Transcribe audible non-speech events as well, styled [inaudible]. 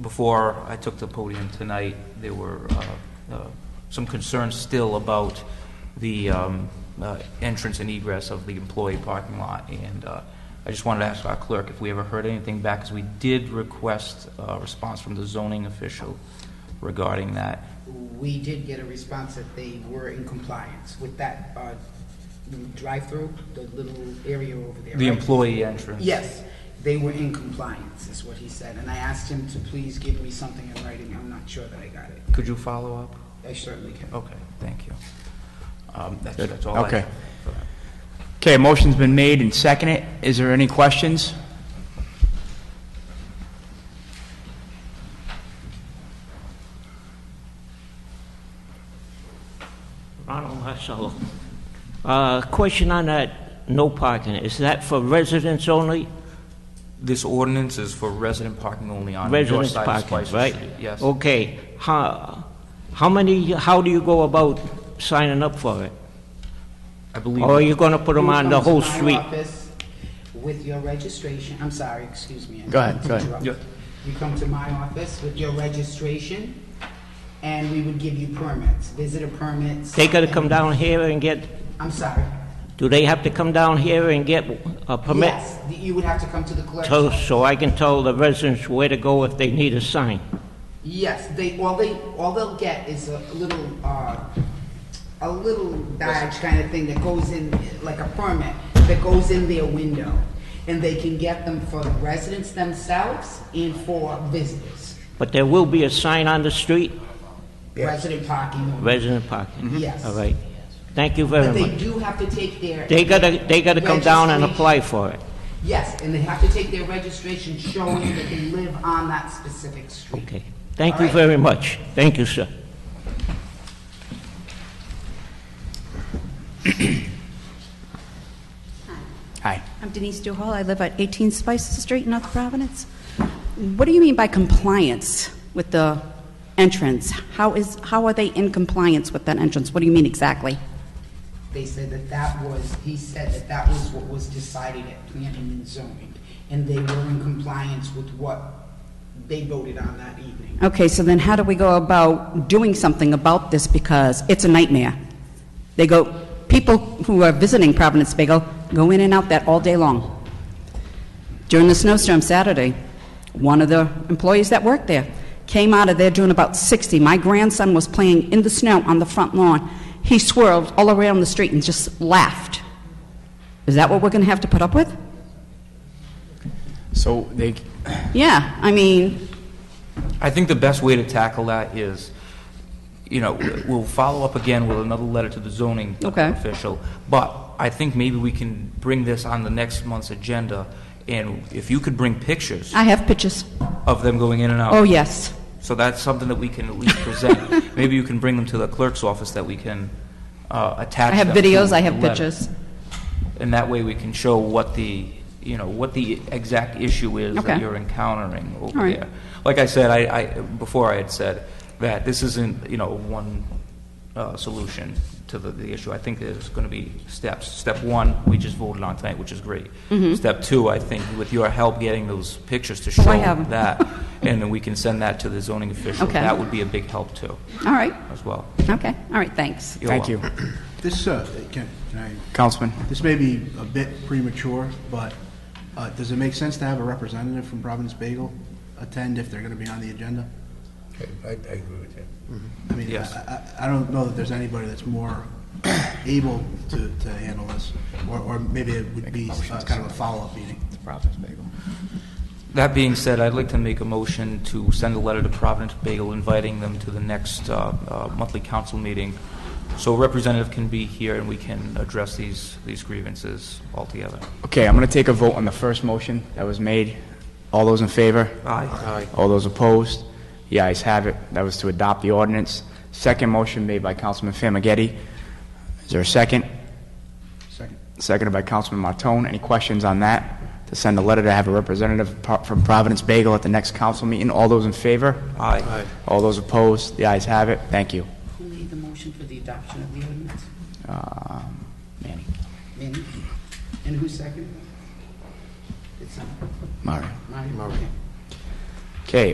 before I took the podium tonight, there were uh, uh, some concerns still about the um, uh, entrance and egress of the employee parking lot, and uh, I just wanted to ask our clerk if we ever heard anything back, because we did request a response from the zoning official regarding that. We did get a response that they were in compliance with that uh, drive-through, the little area over there. The right? employee entrance. Yes, they were in compliance, is what he said, and I asked him to please give me something in writing, I'm not sure that I got it. Could you follow up? I certainly can. Okay, thank you. Um, That's Good. that's all I have. Okay. Okay, motion's been made and seconded. Is there any questions? Ronald Marcello. Uh, Question on that no parking, is that for residents only? This ordinance is for resident parking only on the north Residents side of Spicer parking, Street. right? Oh. Yes. Okay, how, how many, how do you go about signing up for it? I believe. Or are Oh, you gonna put them on the whole You come to my street? office With your registration, I'm sorry, excuse me. I Go ahead, go ahead. interrupted. Yeah. You come to my office with your registration, and we would give you permits, visitor permits. They gotta come and- down here and get, I'm sorry. do they have to come down here and get a permit? Yes, you would have to come to the clerk's So, so I can tell the residents where to go if they need a sign? Yes, they, all they, all they'll get is a little, uh, a little badge kind of thing that goes in, like a permit, that goes in their window. And they can get them for the residents themselves and for visitors. But there will be a sign on the street, Resident parking only. resident parking? Mm-hmm. Yes. All right. Thank you But very they much. do have to take their. They gotta, they gotta come down and Registration. apply for it. Yes, and they have to take their registration showing that they live on that specific street. Okay. Thank you All right. very much. Thank you, sir. Hi. I'm Denise Duhall. I live at 18 Spices Street, North Providence. What do you mean by compliance with the entrance? How is, how are they in compliance with that entrance? What do you mean exactly? They said that that was, he said that that was what was decided at planning and zoning, and they were in compliance with what they voted on that evening. Okay, so then how do we go about doing something about this because it's a nightmare? They go, people who are visiting Providence Bay go, go in and out that all day long. During the snowstorm Saturday, one of the employees that worked there came out of there doing about 60. My grandson was playing in the snow on the front lawn. He swirled all around the street and just laughed. Is that what we're going to have to put up with? So they, Yeah, I mean, I think the best way to tackle that is, you know, we'll follow up again with another letter to the zoning Okay. official. But I think maybe we can bring this on the next month's agenda, and if you could bring pictures I have pictures. of them going in and out. Oh, yes. So that's something that we can at least [laughs] present. Maybe you can bring them to the clerk's office that we can uh, attach I have them to videos, I have the letter. pictures. And that way we can show what the, you know, what the exact issue is that Okay. you're encountering over All right. there. Like I said, I, I, before I had said that this isn't, you know, one uh, solution to the, the issue. I think there's going to be steps. Step one, we just voted on tonight, which is great. Step two, I think with your help getting those pictures to show Mm-hmm. Oh, I have 'em. that, [laughs] and then we can send that to the zoning official. Okay. That would be a big help too, All right. as well. Okay, all right, thanks. You're thank you. welcome. This, uh, can, can I, Councilman, this may be a bit premature, but, uh, does it make sense to have a representative from Providence Bagel attend if they're gonna be on the agenda? Okay, I, I agree with you. I mean, I, Yes. I, I don't know that there's anybody that's more [clears throat] able to, to handle this, or, or maybe it would be uh, kind of a follow-up meeting. That being said, I'd like to make a motion to send a letter to Providence Bagel inviting them to the next uh, uh, monthly council meeting, so a representative can be here and we can address these, these grievances altogether. okay, I'm going to take a vote on the first motion that was made. All those in favor? Aye. All those opposed? The ayes have it. That was to adopt the ordinance. Second motion made by Councilman Famagetti. Is there a second? Second. Seconded by Councilman Martone. Any questions on that? To send a letter to have a representative pro- from Providence Bagel at the next council meeting. All those in favor? Aye. All those opposed? The ayes have it. Thank you. Who made the motion for the adoption of the ordinance? Um, Manny. Manny? And who seconded? It's not, Mario. Mario, okay. Okay,